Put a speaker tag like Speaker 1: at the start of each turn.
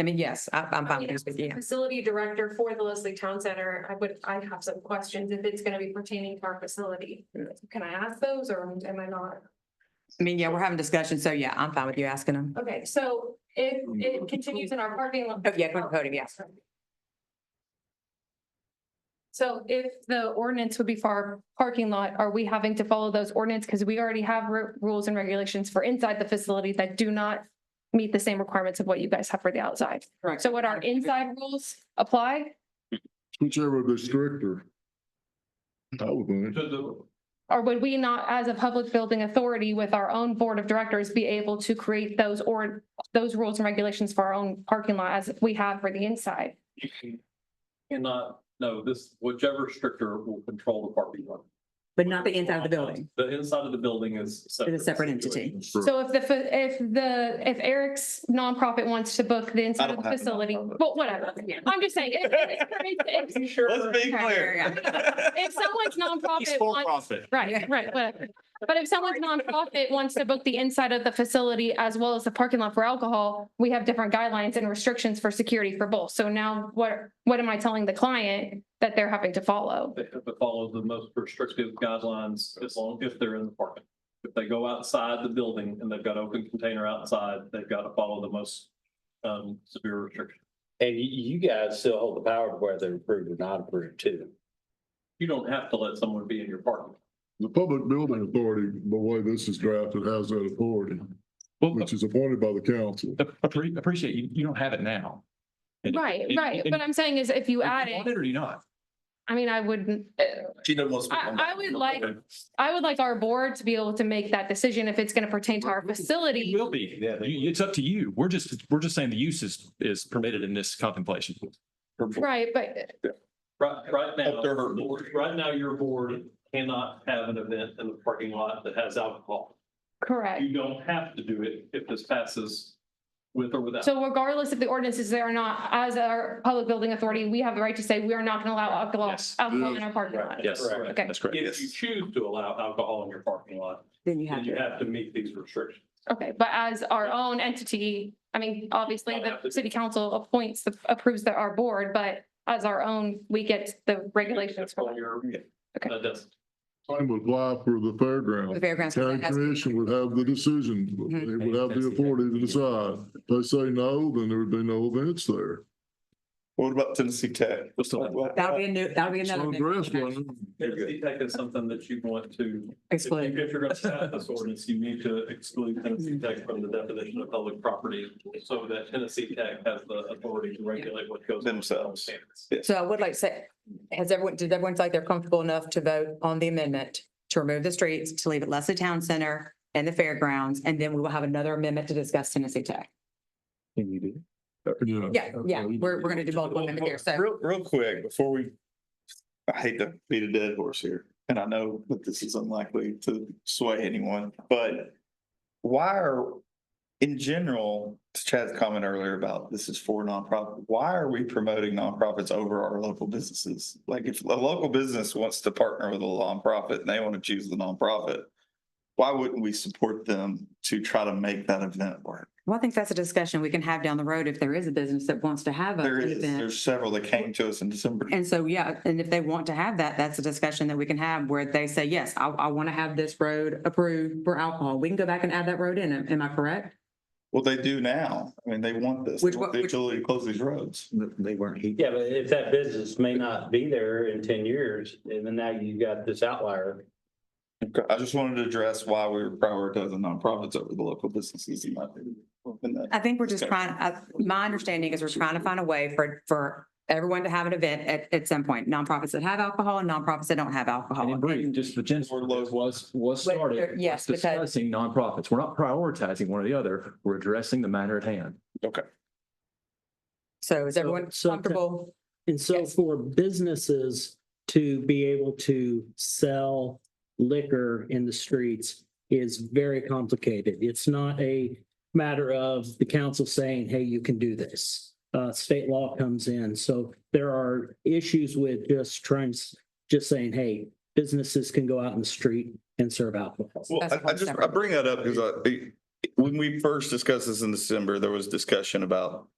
Speaker 1: I mean, yes, I- I'm fine with this, but yeah.
Speaker 2: Facility director for the Leslie Town Center, I would, I have some questions if it's gonna be pertaining to our facility. Can I ask those or am I not?
Speaker 1: I mean, yeah, we're having discussions, so yeah, I'm fine with you asking them.
Speaker 2: Okay, so if it continues in our parking lot.
Speaker 1: Oh, yeah, go to the podium, yes.
Speaker 2: So if the ordinance would be for our parking lot, are we having to follow those ordinance? Because we already have ru- rules and regulations for inside the facility that do not meet the same requirements of what you guys have for the outside.
Speaker 1: Correct.
Speaker 2: So would our inside rules apply?
Speaker 3: Whichever the stricter. That would be.
Speaker 4: To the,
Speaker 2: Or would we not, as a public building authority with our own board of directors, be able to create those or those rules and regulations for our own parking lot as we have for the inside?
Speaker 4: you can- cannot, no, this, whichever stricter will control the parking lot.
Speaker 1: But not the inside of the building.
Speaker 4: The inside of the building is.
Speaker 1: It's a separate entity.
Speaker 2: So if the, fa- if the, if Eric's nonprofit wants to book the inside of the facility, well, whatever. I'm just saying. if- if- if-
Speaker 5: Let's be
Speaker 1: Yeah,
Speaker 5: clear.
Speaker 2: If someone's
Speaker 5: He's
Speaker 2: nonprofit
Speaker 5: for
Speaker 2: wants,
Speaker 5: profit.
Speaker 1: Yeah.
Speaker 2: right, right, whatever. But if someone's nonprofit wants to book the inside of the facility as well as the parking lot for alcohol, we have different guidelines and restrictions for security for both. So now what, what am I telling the client that they're having to follow?
Speaker 4: They have to follow the most restrictive guidelines as long if they're in the parking. If they go outside the building and they've got open container outside, they've got to follow the most um severe restriction.
Speaker 6: And you, you guys still hold the power to whether approved or not approved too.
Speaker 4: You don't have to let someone be in your parking.
Speaker 3: The public building authority, the way this is drafted, has that authority,
Speaker 7: Well,
Speaker 3: which is appointed by the council.
Speaker 7: ap- appre- appreciate you, you don't have it now. And-
Speaker 2: Right,
Speaker 7: and-
Speaker 2: right.
Speaker 7: and-
Speaker 2: What I'm saying is if you add
Speaker 7: want
Speaker 2: it,
Speaker 7: Or you not.
Speaker 2: I mean, I wouldn't, uh,
Speaker 5: She doesn't want to speak on that.
Speaker 2: I, I would like, I would like our board to be able to make that decision if it's going to pertain to our
Speaker 7: It
Speaker 2: facility.
Speaker 7: will be.
Speaker 6: Yeah, they-
Speaker 7: You- It's up to you. We're just, we're just saying the use is, is permitted in this contemplation.
Speaker 2: Right, but
Speaker 4: Right, right now,
Speaker 5: Up to her.
Speaker 4: right now, your board cannot have an event in the parking lot that has alcohol.
Speaker 2: correct.
Speaker 4: You don't have to do it if this passes with or without.
Speaker 2: So regardless if the ordinance is there or not, as our public building authority, we have the right to say we are not going to allow alcohol,
Speaker 7: Yes.
Speaker 2: alcohol in our parking lot.
Speaker 7: Yes,
Speaker 4: Correct.
Speaker 2: Okay.
Speaker 7: that's correct.
Speaker 4: If you choose to allow alcohol in your parking lot,
Speaker 1: Then you
Speaker 4: then
Speaker 1: have
Speaker 4: you
Speaker 1: to.
Speaker 4: have to meet these restrictions.
Speaker 2: Okay, but as our own entity, I mean, obviously the city council appoints, the- approves the- our board, but as our own, we get the regulations. for
Speaker 4: That's
Speaker 2: that.
Speaker 4: your-
Speaker 2: Okay.
Speaker 4: That does.
Speaker 3: Same would apply for the
Speaker 1: The
Speaker 3: fairground.
Speaker 1: fairgrounds.
Speaker 3: County commission would have the decision,
Speaker 1: Mhm.
Speaker 3: They would have the authority to decide. If They say no, then there would be no events there.
Speaker 5: What about Tennessee Tech?
Speaker 7: We'll still have-
Speaker 1: That'll be a new, that'll be
Speaker 3: It's
Speaker 1: another.
Speaker 3: unaddressed,
Speaker 1: new-
Speaker 3: wasn't it?
Speaker 4: Tennessee Tech is something that you want to, if you-
Speaker 1: Explain.
Speaker 4: if you're going to pass this ordinance, you need to exclude Tennessee Tech from the definition of public property so that Tennessee Tech has the authority to regulate what goes. on
Speaker 5: Themselves.
Speaker 4: on campus.
Speaker 1: So I would like to say, has everyone, did everyone feel like they're comfortable enough to vote on the amendment to remove the streets, to leave it Leslie Town Center and the fairgrounds, and then we will have another amendment to discuss Tennessee Tech?
Speaker 5: Can you do?
Speaker 3: Yeah.
Speaker 1: Yeah, yeah, we're, we're gonna do multiple amendments there, so.
Speaker 5: Real, real quick, before we, I hate to beat a dead horse here, and I know that this is unlikely to sway anyone, but why are, in general, to Chad's comment earlier about this is for nonprofit, why are we promoting nonprofits over our local businesses? Like if a local business wants to partner with a nonprofit and they want to choose the nonprofit, why wouldn't we support them to try to make that event work?
Speaker 1: Well, I think that's a discussion we can have down the road if there is a business that wants to have a-
Speaker 5: There
Speaker 1: an
Speaker 5: is,
Speaker 1: event.
Speaker 5: there's several that came to us in December.
Speaker 1: And so, yeah, and if they want to have that, that's a discussion that we can have where they say, yes, I, I want to have this road approved for alcohol. We can go back and add that road in. Am am I correct?
Speaker 5: Well, they do now. I mean, they want this.
Speaker 1: Which
Speaker 5: They want
Speaker 1: one-
Speaker 5: the
Speaker 1: which-
Speaker 5: ability to close these roads.
Speaker 6: They weren't. Yeah, but if that business may not be there in ten years, and then now you got this outlier.
Speaker 5: Okay, I just wanted to address why we were prioritizing nonprofits over the local businesses. in my opinion. And that-
Speaker 1: I think we're just trying, I- my understanding is we're trying to find a way for, for everyone to have an event at, at some point. Nonprofits that have alcohol and nonprofits that don't have
Speaker 7: And
Speaker 1: alcohol.
Speaker 7: in brief, just the genesis of this was, was
Speaker 1: But
Speaker 7: started.
Speaker 1: there- yes,
Speaker 7: was
Speaker 1: because-
Speaker 7: Discussing nonprofits. We're not prioritizing one or the other. We're addressing the matter at hand.
Speaker 1: So is everyone
Speaker 8: So- so-
Speaker 1: comfortable?
Speaker 8: And so
Speaker 1: Yes.
Speaker 8: for businesses to be able to sell liquor in the streets is very complicated. It's not a matter of the council saying, hey, you can do this. Uh, state law comes in. So there are issues with just trying, just saying, hey, businesses can go out in the street and serve alcohol.
Speaker 5: Well,
Speaker 1: That's a
Speaker 5: I, I
Speaker 1: whole
Speaker 5: just, I
Speaker 1: separate-
Speaker 5: bring that up because I, when we first discussed this in December, there was discussion about